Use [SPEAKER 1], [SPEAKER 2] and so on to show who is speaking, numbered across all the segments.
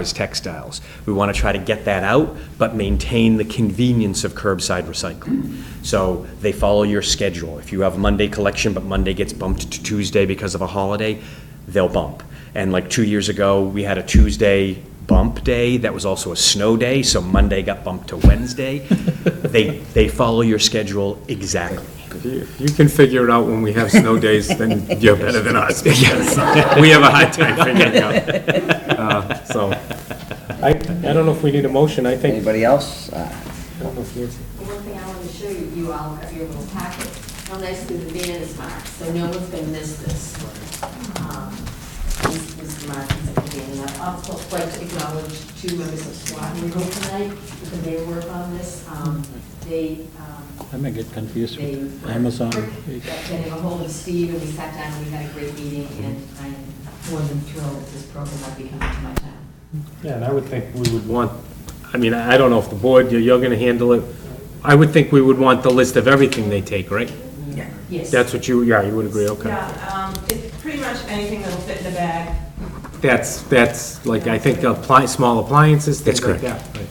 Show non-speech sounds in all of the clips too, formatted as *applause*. [SPEAKER 1] as textiles. We want to try to get that out, but maintain the convenience of curbside recycling. So they follow your schedule. If you have Monday collection, but Monday gets bumped to Tuesday because of a holiday, they'll bump. And like two years ago, we had a Tuesday bump day that was also a snow day, so Monday got bumped to Wednesday. They, they follow your schedule exactly.
[SPEAKER 2] If you can figure it out when we have snow days, *laughs* then you're better than us. because We have a hard time figuring it out. Uh, So, I, I don't know if we need a motion, I think.
[SPEAKER 3] Anybody else? Uh,
[SPEAKER 2] I don't know if Nancy-
[SPEAKER 4] The One thing I wanted to show you, you all have your little packet, how nicely the van is marked, so no one's gonna miss this. Um, this- This mark is at the beginning. I'd also like to acknowledge two members of SWAT in the room tonight, because they work on this. Um, They, um,
[SPEAKER 5] I may get confused
[SPEAKER 4] they.
[SPEAKER 5] with Amazon.
[SPEAKER 4] Got Getting ahold of Steve, and we sat down, and we had a great meeting, and I'm more than thrilled that this program might be coming to my town.
[SPEAKER 2] Yeah, and I would think we would want, I mean, I I don't know if the board, you're, you're gonna handle it. I would think we would want the list of everything they take, right?
[SPEAKER 4] Yes.
[SPEAKER 2] That's what you, yeah, you would agree, okay.
[SPEAKER 6] Yeah, um, it's pretty much anything that'll fit in the bag.
[SPEAKER 2] That's, that's, like, I think appli, small appliances, things like
[SPEAKER 1] That's
[SPEAKER 2] that. right.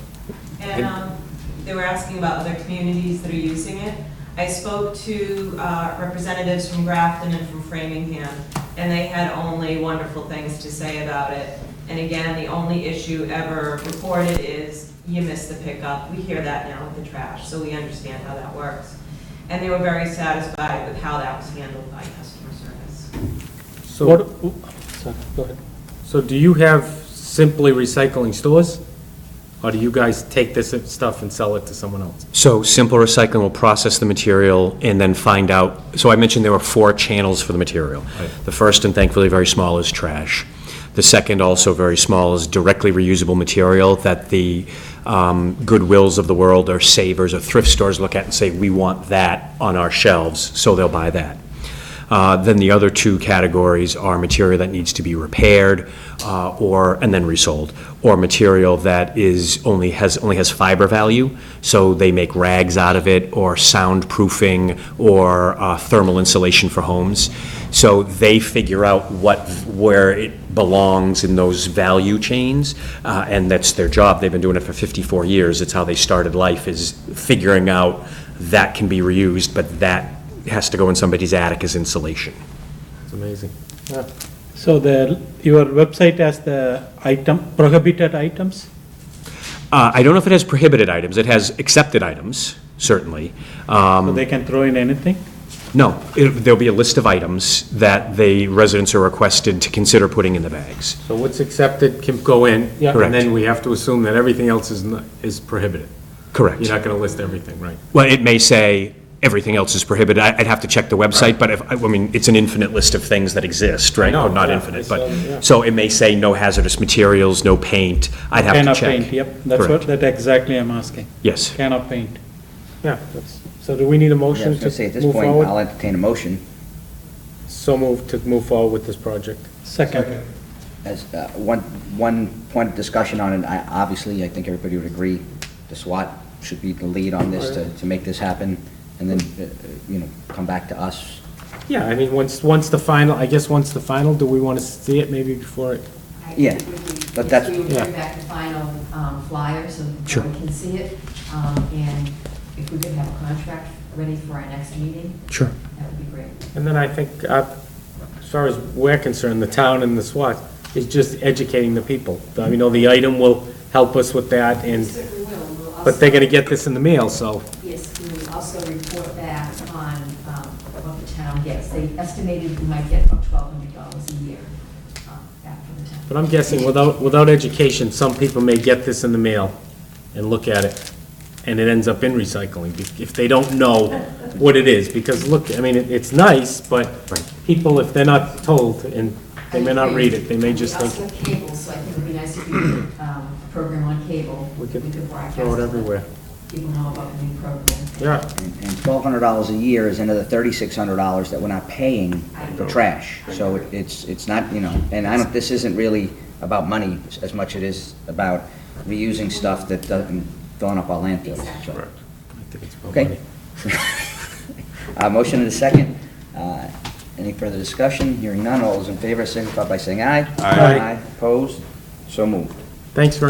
[SPEAKER 6] And um, they were asking about other communities that are using it. I spoke to uh, representatives from Grafton and from Framingham, and they had only wonderful things to say about it. And again, the only issue ever reported is you missed the pickup. We hear that now with the trash, so we understand how that works. And they were very satisfied with how that was handled by customer service.
[SPEAKER 5] What,
[SPEAKER 2] So,
[SPEAKER 5] oh, sorry, go ahead.
[SPEAKER 2] so do you have simply recycling stores? Or do you guys take this stuff and sell it to someone else?
[SPEAKER 1] So Simple Recycling will process the material and then find out, so I mentioned there were four channels for the material.
[SPEAKER 2] Right.
[SPEAKER 1] The first, and thankfully very small, is trash. The second, also very small, is directly reusable material that the um, Goodwills of the world, or savers, or thrift stores look at and say, "We want that on our shelves," so they'll buy that. Uh, Then the other two categories are material that needs to be repaired uh, or, and then resold, or material that is, only has, only has fiber value, so they make rags out of it, or soundproofing, or uh, thermal insulation for homes. So they figure out what, where it belongs in those value chains, uh, and that's their job. They've been doing it for 54 years. It's how they started life, is figuring out that can be reused, but that has to go in somebody's attic as insulation.
[SPEAKER 2] It's amazing.
[SPEAKER 5] So the, your website has the item, prohibited items?
[SPEAKER 1] Uh, I don't know if it has prohibited items. It has accepted items, certainly. Um,
[SPEAKER 5] So they can throw in anything?
[SPEAKER 1] No, it- there'll be a list of items that the residents are requested to consider putting in the bags.
[SPEAKER 2] So what's accepted can go in.
[SPEAKER 5] Yeah.
[SPEAKER 2] And then we have to assume that everything else is, not- is prohibited.
[SPEAKER 1] Correct.
[SPEAKER 2] You're not gonna list everything, right?
[SPEAKER 1] Well, it may say, everything else is prohibited. I- I'd have to check the website, but if, I mean, it's an infinite list of things that exist, right?
[SPEAKER 2] know,
[SPEAKER 1] Or Not
[SPEAKER 2] yeah,
[SPEAKER 1] infinite,
[SPEAKER 2] it's, um, yeah.
[SPEAKER 1] but, so it may say no hazardous materials, no paint. I'd have
[SPEAKER 5] Can
[SPEAKER 1] to
[SPEAKER 5] of
[SPEAKER 1] check.
[SPEAKER 5] paint, Yep, that's what,
[SPEAKER 1] Correct.
[SPEAKER 5] that exactly I'm asking.
[SPEAKER 1] Yes.
[SPEAKER 5] Can of paint.
[SPEAKER 2] Yeah. So do we need a
[SPEAKER 3] Yeah, I
[SPEAKER 2] motion
[SPEAKER 3] was gonna say,
[SPEAKER 2] to
[SPEAKER 3] at this
[SPEAKER 2] move
[SPEAKER 3] point, I'll
[SPEAKER 2] forward?
[SPEAKER 3] entertain a motion
[SPEAKER 2] So move, to move forward with this project.
[SPEAKER 5] Second,
[SPEAKER 3] as, uh, one, one point of discussion on it, I, obviously, I think everybody would agree, the SWAT should be the lead on this to, to make this happen, and then, uh, uh, you know, come back to us.
[SPEAKER 2] Yeah, I mean, once, once the final, I guess once the final, do we wanna see it maybe before it?
[SPEAKER 4] I
[SPEAKER 3] Yeah,
[SPEAKER 4] think it would be-
[SPEAKER 3] but that's-
[SPEAKER 4] We would
[SPEAKER 2] Yeah.
[SPEAKER 4] bring back the final um, flyer so that
[SPEAKER 1] Sure.
[SPEAKER 4] everyone can see it. Um, And if we could have a contract ready for our next meeting,
[SPEAKER 1] Sure.
[SPEAKER 4] that would be great.
[SPEAKER 2] And then I think, uh, as far as we're concerned, the town and the SWAT is just educating the people. I mean, oh, the item will help us with that and,
[SPEAKER 4] Certainly will. We'll also-
[SPEAKER 2] but they're gonna get this in the mail, so.
[SPEAKER 4] Yes, we will also report back on um, what the town gets. They estimated we might get about $1,200 a year um, back from the town.
[SPEAKER 2] But I'm guessing without, without education, some people may get this in the mail and look at it, and it ends up in recycling be- if they don't know what it is. Because look, I mean, it- it's nice, but people, if they're not told, and they may not read it, they may just
[SPEAKER 4] We
[SPEAKER 2] think,
[SPEAKER 4] also have cable, so I think it would be nice if you did um, a program on cable.
[SPEAKER 2] We could
[SPEAKER 4] broadcast
[SPEAKER 2] throw it
[SPEAKER 4] let
[SPEAKER 2] everywhere.
[SPEAKER 4] People know about the new program.
[SPEAKER 2] Yeah,
[SPEAKER 3] And twelve hundred dollars a year is another thirty-six hundred dollars that we're not paying for trash. So it- it's, it's not, you know, and I don't, this isn't really about money as much it is about reusing stuff that doesn't, filling up our landfills. So- Okay. *laughs* Uh, motion and a second. Uh, Any further discussion? Hearing none, all those in favor signify by saying aye.
[SPEAKER 2] Aye.
[SPEAKER 3] Opposed? So moved.
[SPEAKER 2] Thanks very